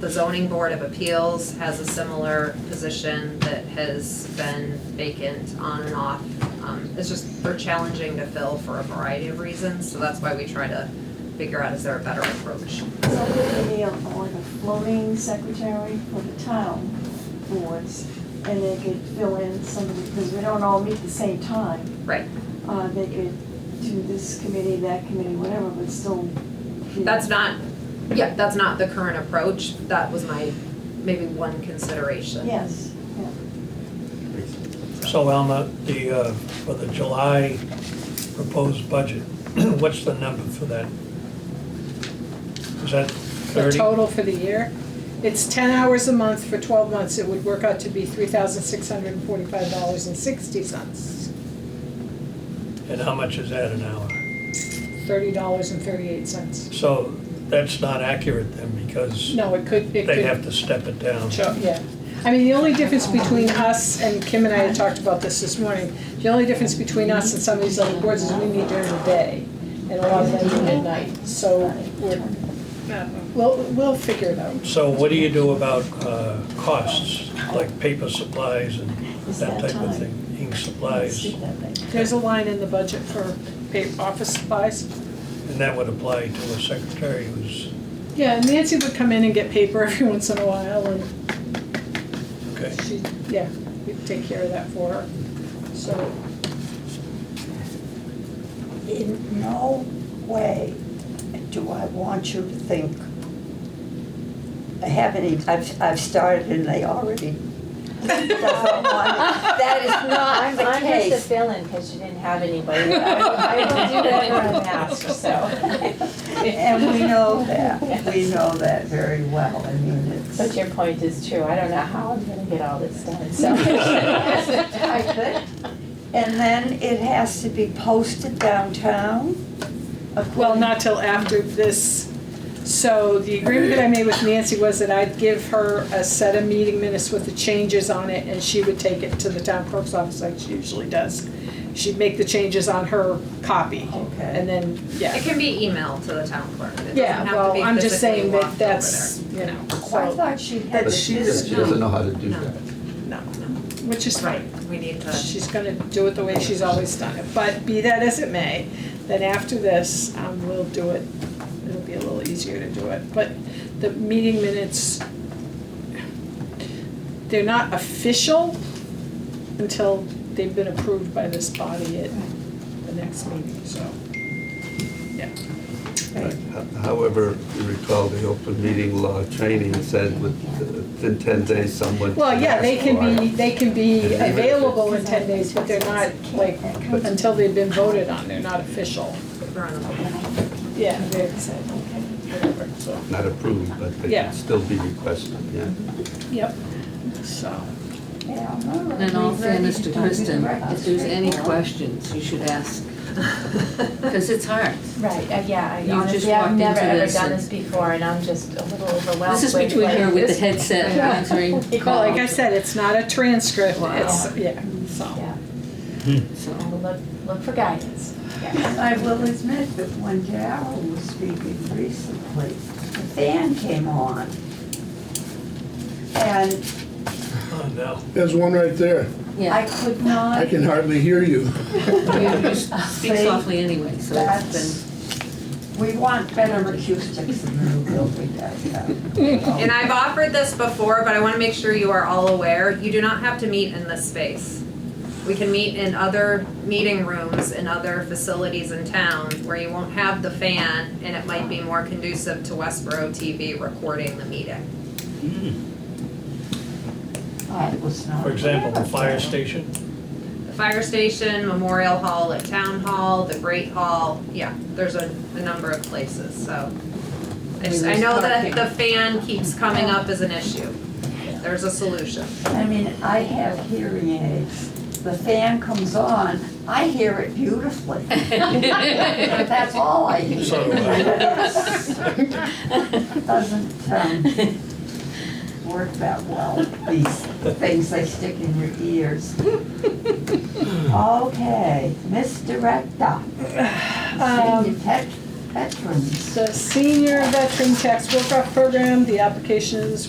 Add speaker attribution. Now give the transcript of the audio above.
Speaker 1: the zoning board of appeals has a similar position that has been vacant on and off. Um, It's just, they're challenging to fill for a variety of reasons, so that's why we try to figure out, is there a better approach?
Speaker 2: So it would be a- like a floating secretary for the town boards, and they could fill in some of the, because we don't all meet the same time.
Speaker 1: Right,
Speaker 2: Uh, they could do this committee, that committee, whatever, but still. be-
Speaker 1: that's not, yeah, that's not the current approach, that was my, maybe one consideration.
Speaker 2: Yes, yeah.
Speaker 3: So Alma, the, uh, for the July proposed budget, what's the number for that? Is that
Speaker 4: The
Speaker 3: 30?
Speaker 4: total for the year? It's ten hours a month for twelve months, it would work out to be three thousand six hundred and forty-five dollars and sixty cents.
Speaker 3: And how much is that an hour?
Speaker 4: Thirty dollars and thirty-eight cents.
Speaker 3: So that's not accurate then, because
Speaker 4: No, it could, it could.
Speaker 3: they have to step it down.
Speaker 4: Sure, yeah. I mean, the only difference between us, and Kim and I had talked about this this morning, the only difference between us and some of these other boards is we meet during the day, and a lot of them meet at night, so we're, we'll, we'll figure it out.
Speaker 3: So what do you do about uh, costs, like paper supplies and
Speaker 2: Is
Speaker 3: that
Speaker 2: that
Speaker 3: type of
Speaker 2: time?
Speaker 3: thing? Ink
Speaker 2: Let's
Speaker 3: supplies,
Speaker 2: see
Speaker 3: and
Speaker 2: that thing.
Speaker 4: There's a line in the budget for pay, office supplies.
Speaker 3: that would apply to a secretary who's,
Speaker 4: Yeah, and Nancy would come in and get paper every once in a while, and
Speaker 3: okay.
Speaker 4: she, yeah, we'd take care of that for her. So,
Speaker 5: In no way do I want you to think, I haven't, even- I've, I've started and they already. That is not
Speaker 6: I'm,
Speaker 5: the
Speaker 6: I'm just a
Speaker 5: case.
Speaker 6: fill-in because you didn't have anybody. I I don't do that when I'm asked, so.
Speaker 5: And we know that, we know that very well, I mean,
Speaker 6: But
Speaker 5: it's.
Speaker 6: your point is true. I don't know how I'm gonna get all this done, so.
Speaker 5: I could. And then it has to be posted downtown.
Speaker 4: uh, well,
Speaker 5: according-
Speaker 4: not till after this. So the agreement that I made with Nancy was that I'd give her a set of meeting minutes with the changes on it, and she would take it to the town clerk's office like she usually does. She'd make the changes on her copy,
Speaker 5: Okay.
Speaker 4: and then,
Speaker 1: It
Speaker 4: yeah.
Speaker 1: can be emailed to the town clerk, it doesn't
Speaker 4: Yeah,
Speaker 1: have to
Speaker 4: well,
Speaker 1: be
Speaker 4: I'm just
Speaker 1: physically
Speaker 4: saying
Speaker 1: walked over
Speaker 4: that that's, you know,
Speaker 5: Oh, I
Speaker 4: so,
Speaker 5: thought she had
Speaker 7: But
Speaker 5: this
Speaker 7: she does- she
Speaker 5: business.
Speaker 7: doesn't know how to do
Speaker 1: No.
Speaker 7: that.
Speaker 4: no, which is
Speaker 1: there.
Speaker 4: fine.
Speaker 1: Right, we need to,
Speaker 4: Uh, She's gonna do it the way she's always done it, but be that as it may, then after this, um, we'll do it, it'll be a little easier to do it, but the meeting minutes, they're not official until they've been approved by this body at the next meeting, so.
Speaker 7: However, you recall the open meeting law training said with, within 10 days, someone.
Speaker 4: Well, yeah, they can be, they can be
Speaker 7: Yeah.
Speaker 4: available in ten days, but they're not, like, until they've been voted on, they're not official.
Speaker 1: we're on the
Speaker 4: Yeah, they're, whatever, so.
Speaker 7: Not approved, but they
Speaker 4: Yeah.
Speaker 7: can still be requested, yeah.
Speaker 4: Yep, so.
Speaker 5: Yeah, I'm all right.
Speaker 8: In all fairness to
Speaker 5: Don't be
Speaker 8: Kristen,
Speaker 5: right.
Speaker 8: if there's any questions, you should ask, because it's hard.
Speaker 6: Right, uh, yeah, I
Speaker 8: You just
Speaker 6: honestly, I've
Speaker 8: walked
Speaker 6: never
Speaker 8: into
Speaker 6: ever
Speaker 8: this
Speaker 6: done
Speaker 8: and-
Speaker 6: this before and I'm just a little overwhelmed
Speaker 8: This is
Speaker 6: with,
Speaker 8: between
Speaker 6: like,
Speaker 8: her with the
Speaker 6: this-
Speaker 8: headset
Speaker 6: Yeah.
Speaker 8: answering
Speaker 4: Well, like I
Speaker 8: calls,
Speaker 4: said, it's not a transcript,
Speaker 8: Wow.
Speaker 4: it's, yeah, so.
Speaker 6: Yeah, I
Speaker 8: so.
Speaker 6: will look, look for guidance. Yeah.
Speaker 5: I will admit that when Daryl was speaking recently, the fan came on. And
Speaker 3: Oh, no.
Speaker 9: There's one right there.
Speaker 5: I
Speaker 8: Yeah,
Speaker 5: could
Speaker 9: I
Speaker 5: not,
Speaker 9: can hardly hear you.
Speaker 8: you you speak
Speaker 5: See?
Speaker 8: softly anyway, so it's
Speaker 5: that's, we want better acoustics in the new building downtown.
Speaker 1: And I've offered this before, but I want to make sure you are all aware, you do not have to meet in this space. We can meet in other meeting rooms in other facilities in town where you won't have the fan and it might be more conducive to Westboro TV recording the meeting.
Speaker 5: I was not.
Speaker 3: For example, the fire station,
Speaker 1: The fire station, Memorial Hall at Town Hall, the Great Hall, yeah, there's a, a number of places, so. I just, I know that the fan keeps coming up as an issue. There's a solution.
Speaker 5: I mean, I have hearing aids. The fan comes on, I hear it beautifully.
Speaker 8: been.
Speaker 5: But that's all I
Speaker 3: So
Speaker 5: hear.
Speaker 3: do I.
Speaker 5: Doesn't, um, work that well, these things they stick in your ears. Okay, Miss Director.
Speaker 4: Um,
Speaker 5: Senior tech veterans.
Speaker 4: The senior veteran tax workoff program, the applications